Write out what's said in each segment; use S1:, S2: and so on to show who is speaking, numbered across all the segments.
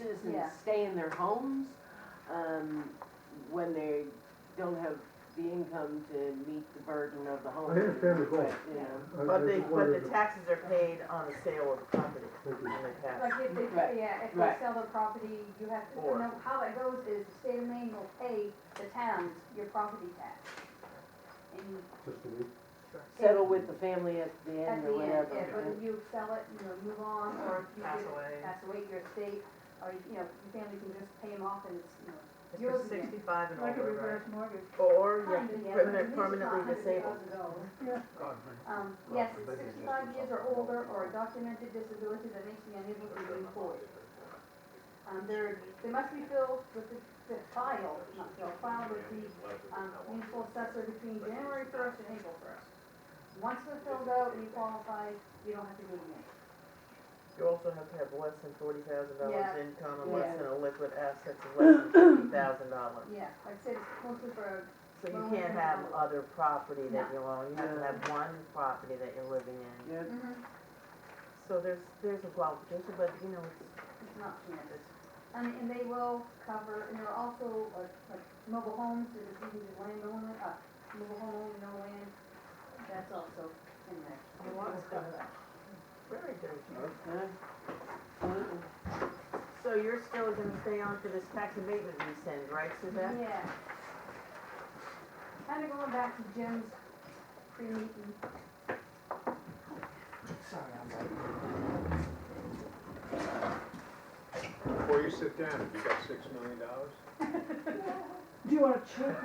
S1: citizens
S2: Yeah.
S1: stay in their homes, um, when they don't have the income to meet the burden of the home.
S3: understand the goal.
S1: You know,
S3: I- I
S4: But the,
S3: just
S4: but
S3: wondered
S4: the
S3: if-
S4: taxes are paid on the sale of property
S3: Thank
S4: when
S3: you.
S4: they pass.
S2: Like if they,
S1: Right,
S2: yeah, if they
S1: right.
S2: sell the property, you have to,
S4: Or-
S2: no, how it goes is the state of Maine will pay the towns your property tax. And
S3: Just a week.
S1: settle with the family at the
S2: at
S1: end
S2: the
S1: or
S2: end, if
S1: whatever.
S2: whether you sell it, you know, move on, or if you
S5: Pass
S2: give-
S5: away.
S2: pass away your estate, or, you know, your family can just pay them off and it's, you know,
S4: It's
S2: yours
S4: for
S2: again.
S4: sixty-five and
S5: Like a
S4: over,
S5: reverse mortgage.
S4: right? Or
S2: Kind of,
S4: you're
S2: yeah,
S4: permanent-
S2: but at least
S4: permanently
S2: about 100 years
S4: disabled.
S2: ago.
S3: God,
S2: Um,
S3: Well,
S2: yes,
S3: maybe it's
S2: sixty-five
S3: just
S2: years or older, or a documented disability that makes me unable to be employed. Um, they're, they must be filled with the, the file, not filled, filed with the, um, municipal assessor between January first and April first. Once they're filled out and you qualify, you don't have to do anything.
S4: You also have to have less than forty thousand
S2: Yeah.
S4: dollars income and less
S2: Yeah.
S4: than a liquid assets of less than fifty thousand dollars.
S2: Yeah, like I said, it's mostly for,
S4: So you
S2: Well,
S4: can't
S2: we're
S4: have
S2: not-
S4: other property that you own, you have to
S1: No.
S4: have one property that you're living in.
S1: Yeah,
S2: mm-hmm.
S4: So there's, there's a qualification, but you know, it's,
S2: it's not cannabis.
S4: it's
S2: And, and they will cover, and there are also, like, like mobile homes, if it's even just land owner, uh, mobile home, owner, no land, that's also in there.
S4: A lot of stuff. very dirty.
S1: yeah. Absolutely.
S4: So you're still gonna stay on for this tax abatement rescind, right, Suzette?
S2: Yeah. Kind of going back to Jim's pre-meeting.
S6: Before you sit down, have you got six million dollars?
S5: Do you want a check?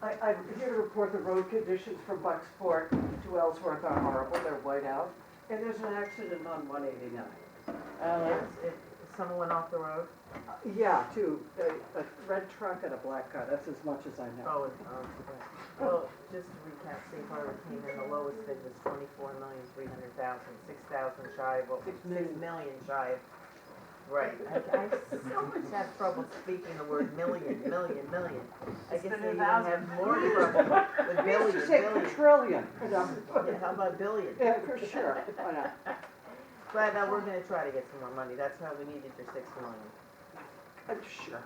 S5: I, I'm here to report the road conditions from Bucksport to Ellsworth are horrible, they're white out. And there's an accident on one eighty-nine.
S1: Uh,
S4: Yes, if someone went off the road,
S5: Yeah, two, a, a red truck and a black car, that's as much as I know.
S4: oh, and, um, well, just to recap, safe harbor came in, the lowest bid was twenty-four million, three hundred thousand, six thousand shy of, what-
S1: Six
S4: six
S1: million.
S4: million shy of. Right, I, I so much have trouble speaking the word million, million, million. I guess they even have more trouble with
S5: We
S4: billion,
S5: used to say
S4: billion.
S5: quadrillion, you know,
S4: Yeah, how about billion?
S5: yeah, for sure, why not?
S4: But, uh, we're gonna try to get some more money, that's how we needed your six million.
S5: Uh, Sure.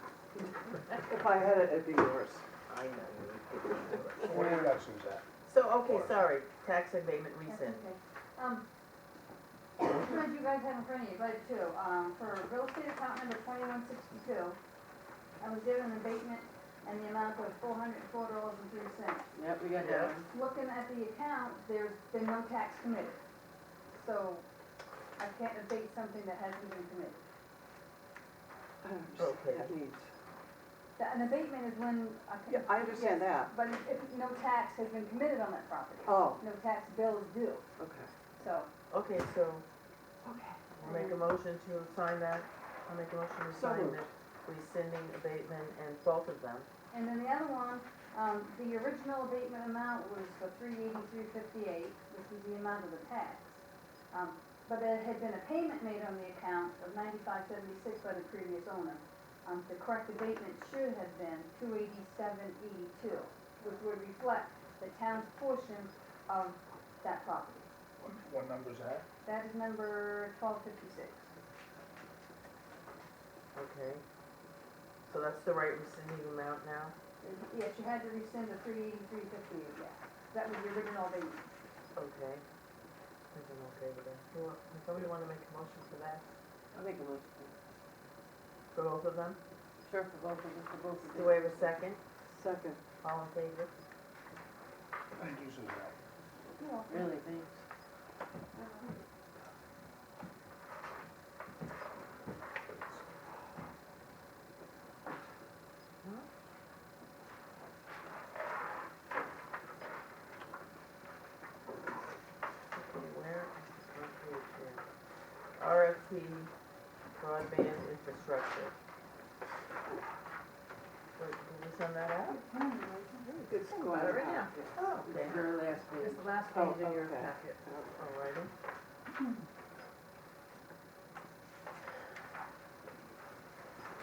S5: If I had it, it'd be yours.
S4: I know. you would give me a
S6: What do you got, Suzette?
S4: So, okay, sorry, tax abatement rescind.
S2: Okay. Um, what you guys have in front of you, budget two, um, for real estate account number twenty-one sixty-two, I was given an abatement and the amount of four hundred and four dollars and three cents.
S1: Yep, we got
S4: Yeah.
S1: that one.
S2: Looking at the account, there's been no tax committed, so I can't abate something that hasn't been committed.
S5: I don't understand what that means.
S2: The- An abatement is when, I
S5: Yeah,
S2: can,
S5: I understand that.
S2: but if- if no tax has been committed on that property.
S5: Oh,
S2: no tax bill is due,
S5: okay.
S2: so.
S4: Okay, so
S2: Okay.
S4: we'll make a motion to sign that, I'll make a motion to
S5: So
S4: sign
S5: moved.
S4: the rescinding abatement and both of them.
S2: And then the other one, um, the original abatement amount was for three eighty-three fifty-eight, which was the amount of the tax. Um, but there had been a payment made on the account of ninety-five seventy-six by the previous owner. Um, the correct abatement should have been two eighty-seven eighty-two, which would reflect the town's portion of that property.
S6: What number's that?
S2: That is number twelve fifty-six.
S4: Okay. So that's the right rescinding amount now?
S2: Yes, you had to rescind the three eighty-three fifty-eight, yes. That was the original abatement.
S4: Okay. Is it okay with that? Who wa- does Somebody wanna make a motion for that,
S1: I'll make a motion.
S4: for both of them?
S1: Sure, for both of us, for both of
S4: Do we have a second?
S5: Second.
S4: All in favor?
S6: Thank you, Suzette.
S1: Really, thanks.
S4: Okay, where is this located here? RFP broadband infrastructure. Wait, did we send that out?
S5: It's going
S4: Better
S5: out,
S4: now.
S5: yeah.
S4: Oh, okay.
S1: Your last page.
S4: It's the last
S5: Oh,
S4: page in your
S5: okay.
S4: packet. Alrighty.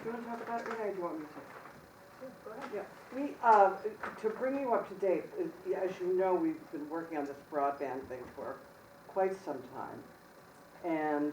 S5: Do you want to talk about it, Renee, or do you want me to? We, um, to bring you up to date, uh, as you know, we've been working on this broadband thing for quite some time. And